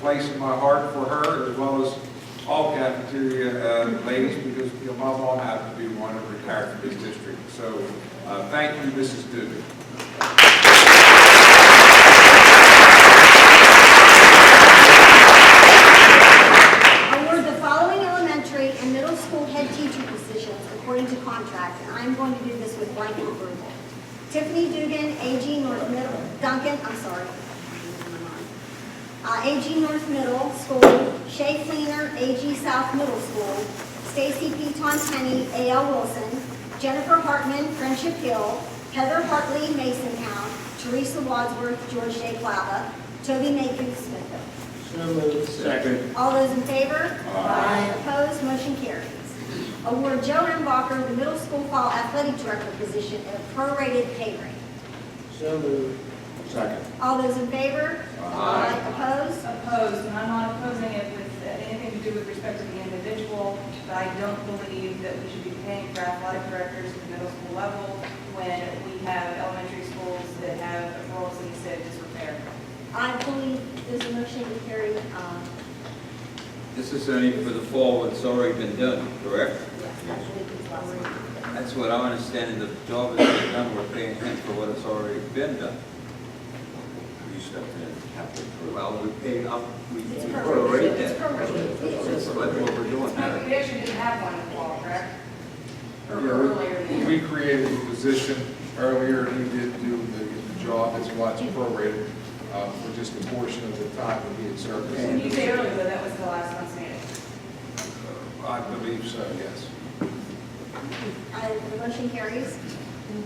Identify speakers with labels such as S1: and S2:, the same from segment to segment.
S1: place in my heart for her, as well as all cafeteria uh, ladies, because you know, my mom happened to be one and retired from this district. So uh, thank you, Mrs. Dugan.
S2: Award the following elementary and middle school head teacher positions according to contract, and I'm going to do this with blanket approval. Tiffany Dugan, AG North Middle, Duncan, I'm sorry. Uh, AG North Middle School, Shay Fleener, AG South Middle School, Stacy P. Tonpenny, AL Wilson, Jennifer Hartman, Friendship Hill, Heather Hartley, Mason Town, Teresa Wadsworth, George J. Flava, Toby Makin, Smithville.
S3: So moved. Second.
S2: All those in favor? Aye. Opposed, motion carries. Award Joe M. Walker the middle school fall athletic director position at a prorated pay rate.
S3: So moved. Second.
S2: All those in favor? Aye. Opposed?
S4: opposed, and I'm not opposing it with anything to do with respect to the individual, but I don't believe that we should be paying for athletic directors at the middle school level when we have elementary schools that have oh roles that you said disrepair.
S2: I believe there's a motion to carry, um,
S5: This is only for the fall, what's already been done, correct?
S2: yes, I believe it's last one.
S5: That's what I understand, the job is been done, we're paying him for what has already been done.
S6: You stepped in, Captain.
S5: Well, we paid up, we
S2: It's
S5: we
S2: prorated,
S5: already
S2: it's
S5: did.
S2: prorated.
S5: That's
S2: It's-
S5: what what we're doing now.
S4: We actually didn't have one in the fall, correct? Or
S1: Yeah,
S4: earlier
S1: we-
S4: than
S1: We created the position earlier, and he did do the the job, that's why it's prorated uh, for just a portion of the time that he had
S4: When
S1: served.
S4: you say earlier, though, that was the last month's meeting.
S1: I believe so, yes.
S2: I, the motion carries.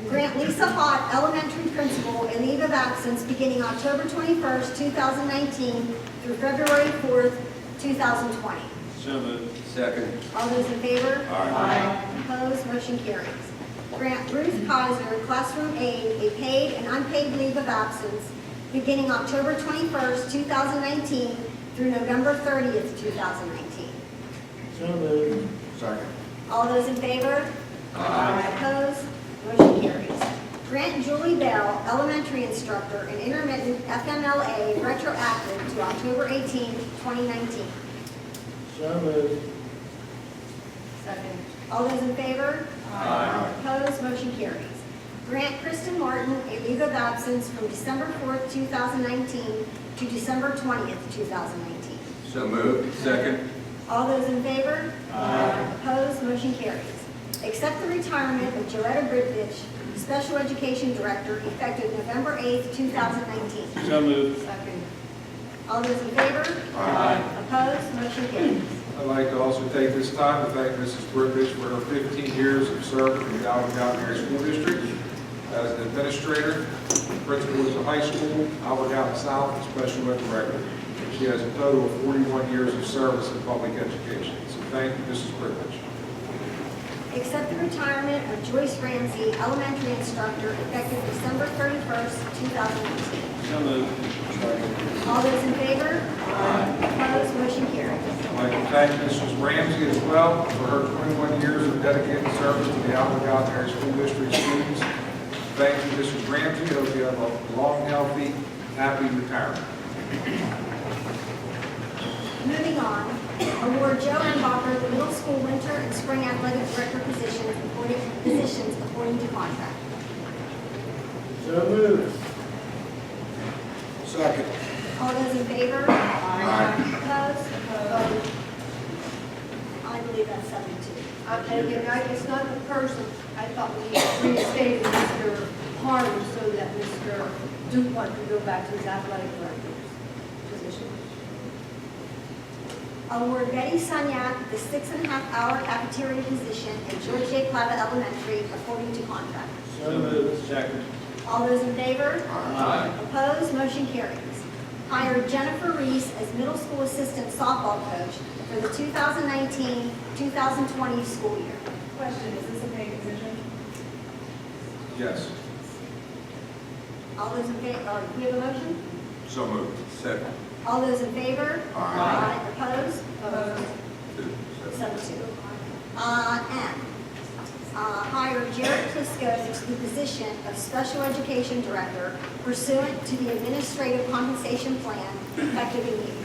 S2: Grant Lisa Hott, elementary principal, a leave of absence beginning October 21st, 2019 through February 4th, 2020.
S5: So moved. Second.
S2: All those in favor? Aye. Opposed, motion carries. Grant Ruth Kaiser, classroom aide, a paid and unpaid leave of absence beginning October 21st, 2019 through November 30th, 2019.
S3: So moved. Second.
S2: All those in favor? Aye. Opposed? Motion carries. Grant Julie Bell, elementary instructor and intermittent FMLA retroactive to October 18, 2019.
S3: So moved.
S4: Second.
S2: All those in favor?
S5: Aye.
S2: Opposed? Motion carries. Grant Kristen Martin a leave of absence from December 4th, 2019 to December 20th, 2019.
S5: So moved. Second.
S2: All those in favor? Aye. Opposed, motion carries. Accept the retirement of Joretta Bridvich, Special Education Director, effective November 8th, 2019.
S3: So moved.
S4: Second.
S2: All those in favor? Aye. Opposed, motion carries.
S1: I'd like to also take this time to thank Mrs. Brookish for her 15 years of service in the Alvin County Area School District as an administrator, principal at the high school, Alvin County South, and special ed director. She has a total of 41 years of service in public education. So thank you, Mrs. Brookish.
S2: Accept the retirement of Joyce Ramsey, Elementary Instructor, effective December 31st, 2019.
S3: So moved.
S2: All those in favor? Aye. Opposed, motion carries.
S1: I'd like to thank Mrs. Ramsey as well for her 21 years of dedicated service to the Alvin County Area School District students. Thank you, Mrs. Ramsey. Hope you have a long, healthy, happy retirement.
S2: Moving on, award Joe M. Bacher the middle school winter and spring athletic director positions according, positions according to contract.
S3: So moved. Second.
S2: All those in favor? Aye. Opposed? Opposed? I believe that's seven two.
S7: And again, I- it's not the person, I thought we reinstated Mr. Harmon so that Mr. Dupont could go back to his athletic director's position.
S2: Award Betty Sonyak the six and a half hour cafeteria position at George J. Clava Elementary according to contract.
S3: So moved. Second.
S2: All those in favor?
S3: Aye.
S2: Opposed, motion carries. Hire Jennifer Reese as middle school assistant softball coach for the 2019-2020 school year.
S4: Question, is this a paid position?
S1: Yes.
S2: All those in favor, or do we have a motion?
S5: So moved. Second.
S2: All those in favor? Aye. Opposed?
S4: Opposed.
S5: Two. Second.
S2: Seven two. Uh, M, uh, hire Jared Plisco to the position of special education director pursuant to the administrative compensation plan effective immediately.